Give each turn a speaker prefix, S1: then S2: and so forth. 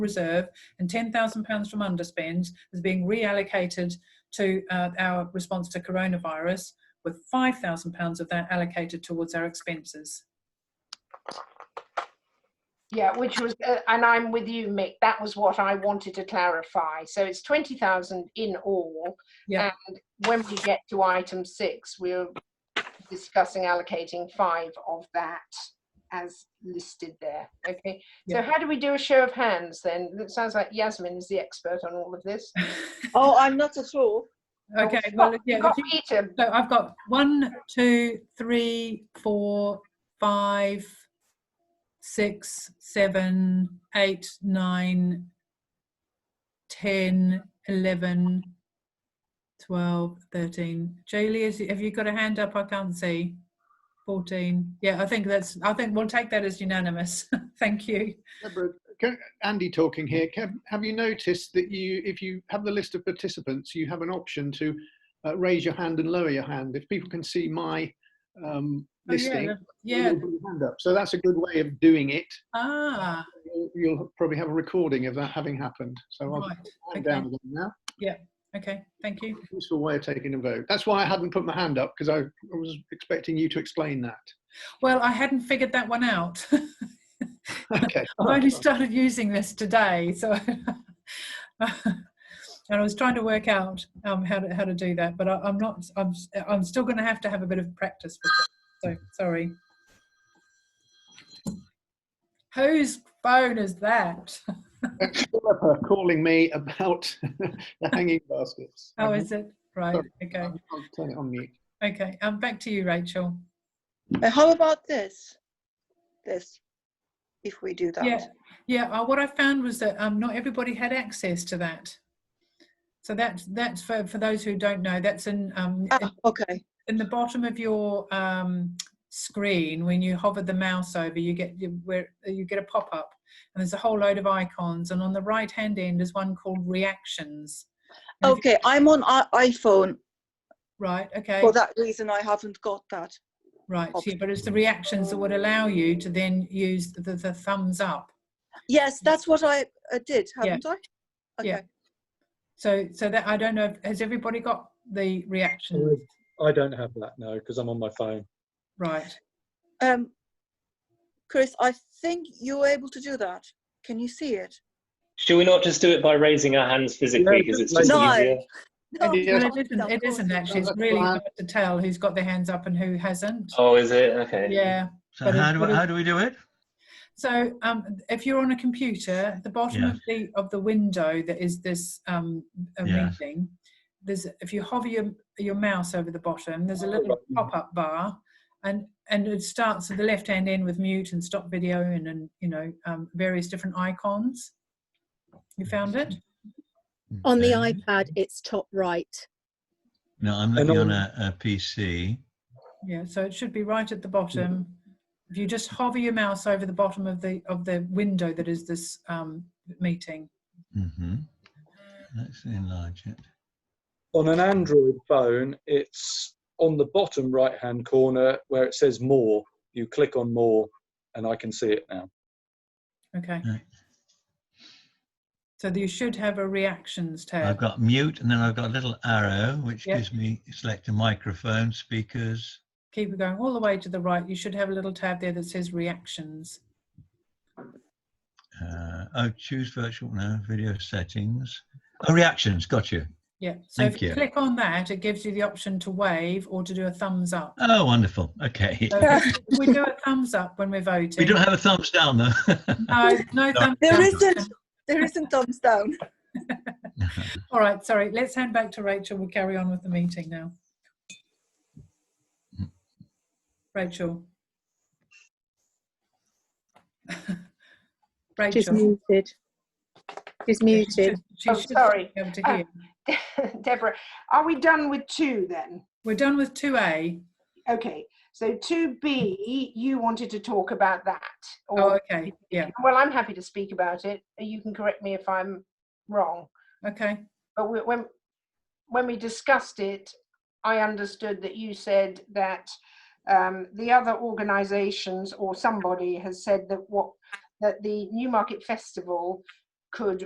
S1: reserve and £10,000 from underspend is being reallocated to uh, our response to coronavirus, with £5,000 of that allocated towards our expenses.
S2: Yeah, which was, uh, and I'm with you, Mick. That was what I wanted to clarify. So it's twenty thousand in all.
S1: Yeah.
S2: And when we get to item six, we're discussing allocating five of that as listed there. Okay. So
S1: Yeah.
S2: how do we do a show of hands then? It sounds like Yasmin is the expert on all of this.
S3: Oh, I'm not at all.
S1: Okay,
S2: We've
S1: well,
S2: got-
S1: yeah,
S2: we've
S1: if
S2: got
S1: you-
S2: Peter.
S1: so I've got one, two, three, four, five, six, seven, eight, nine, 10, 11, 12, 13. Julie, is, have you got a hand up? I can't see. 14. Yeah, I think that's, I think we'll take that as unanimous. Thank you.
S4: Deborah, can, Andy talking here. Can, have you noticed that you, if you have the list of participants, you have an option to uh, raise your hand and lower your hand. If people can see my um,
S1: Oh, yeah,
S4: listing,
S1: that- yeah.
S4: you'll put your hand up. So that's a good way of doing it.
S1: Ah,
S4: You'll, you'll probably have a recording of that having happened. So I'll
S1: right. okay.
S4: put it down again now.
S1: Okay, thank you.
S4: Useful way of taking a vote. That's why I hadn't put my hand up because I, I was expecting you to explain that.
S1: Well, I hadn't figured that one out.
S4: Okay.
S1: I've only started using this today, so and I was trying to work out um, how to how to do that, but I, I'm not. I'm s- I'm still going to have to have a bit of practice with it. So sorry. Whose phone is that?
S4: Philippa calling me about the hanging baskets.
S1: How is it? Right.
S4: Sorry.
S1: Okay.
S4: I'll I'll turn it on mute.
S1: Okay. Um, back to you, Rachel.
S3: Uh, How about this? This, if we do that.
S1: Yeah, yeah. Uh, what I found was that um, not everybody had access to that. So that's that's for, for those who don't know. That's in um, in-
S3: Ah, okay.
S1: in the bottom of your um, screen when you hover the mouse over you get you, where you get a pop-up and there's a whole load of icons and on the right hand end is one called reactions And if you-
S3: Okay, I'm on i- iPhone.
S1: right okay
S3: For that reason, I haven't got that.
S1: right yeah, but it's the reactions that would allow you to then use the, the thumbs up
S3: Yes, that's what I uh, did,
S1: Yeah.
S3: haven't I?
S1: Yeah.
S3: Okay.
S1: so so that i don't know if- has everybody got the reactions
S5: I don't have that no, because I'm on my phone.
S1: right
S3: Um, Chris, I think you're able to do that. Can you see it?
S6: Should we not just do it by raising our hands physically
S5: Yeah,
S6: because it's
S5: like-
S6: just
S3: No.
S6: easier?
S3: No,
S4: Yeah.
S1: well,
S3: of
S1: it
S3: course
S1: isn't,
S3: not,
S1: it
S3: of course
S1: isn't
S3: not.
S1: actually it's
S4: That's
S1: really
S4: fine.
S1: hard to tell who's got their hands up and who hasn't
S6: Oh, is it? Okay.
S1: yeah
S7: So
S1: But
S7: how
S1: it's
S7: do,
S1: sort of-
S7: how do we do it?
S1: So um, if you're on a computer, the bottom of the of the window that is this um, a
S7: Yes.
S1: meeting, there's if you hover your your mouse over the bottom, there's a little pop up bar, and and it starts at the left hand end with mute and stop video and and you know um, various different icons. You found it?
S8: On the
S7: Okay.
S8: iPad, it's top right.
S7: No, I'm
S5: And
S7: looking
S5: on-
S7: on a, a PC.
S1: Yeah. So it should be right at the bottom. If you just hover your mouse over the bottom of the of the window that is this um, meeting.
S7: hmm Let's enlarge it.
S5: On an Android phone, it's on the bottom right hand corner where it says more. You click on more and I can see it now.
S1: Okay.
S7: Right.
S1: So you should have a reactions
S7: I've
S1: tab.
S7: got mute and then I've got a little arrow which
S1: Yeah.
S7: gives me select a microphone, speakers.
S1: Keep it going all the way to the right. You should have a little tab there that says reactions.
S7: Uh, oh, choose virtual no video settings. Oh, reactions. Got you.
S1: Yeah. So if
S7: Thank
S1: you,
S7: you.
S1: click on that, it gives you the option to wave or to do a thumbs up.
S7: Oh, wonderful. Okay.
S1: So if we do a thumbs up when we're voting.
S7: We don't have a thumbs down though.
S1: no, no thumbs
S3: There
S1: down.
S3: isn't. There isn't thumbs down.
S1: All right, sorry. Let's hand back to Rachel. We'll carry on with the meeting now. Rachel.
S8: She's
S1: Rachel.
S8: muted. She's
S1: Yeah, she
S8: muted.
S1: should- she
S2: Oh,
S1: should
S2: sorry.
S1: be able to
S2: Uh,
S1: hear.
S2: Deborah, are we done with two then?
S1: We're done with 2A.
S2: Okay, so two B, you wanted to talk about that.
S1: Oh,
S2: or-
S1: okay. Yeah.
S2: Well, I'm happy to speak about it. You can correct me if I'm wrong.
S1: Okay.
S2: But we- when, when we discussed it, I understood that you said that um, the other organizations or somebody has said that what, that the Newmarket Festival could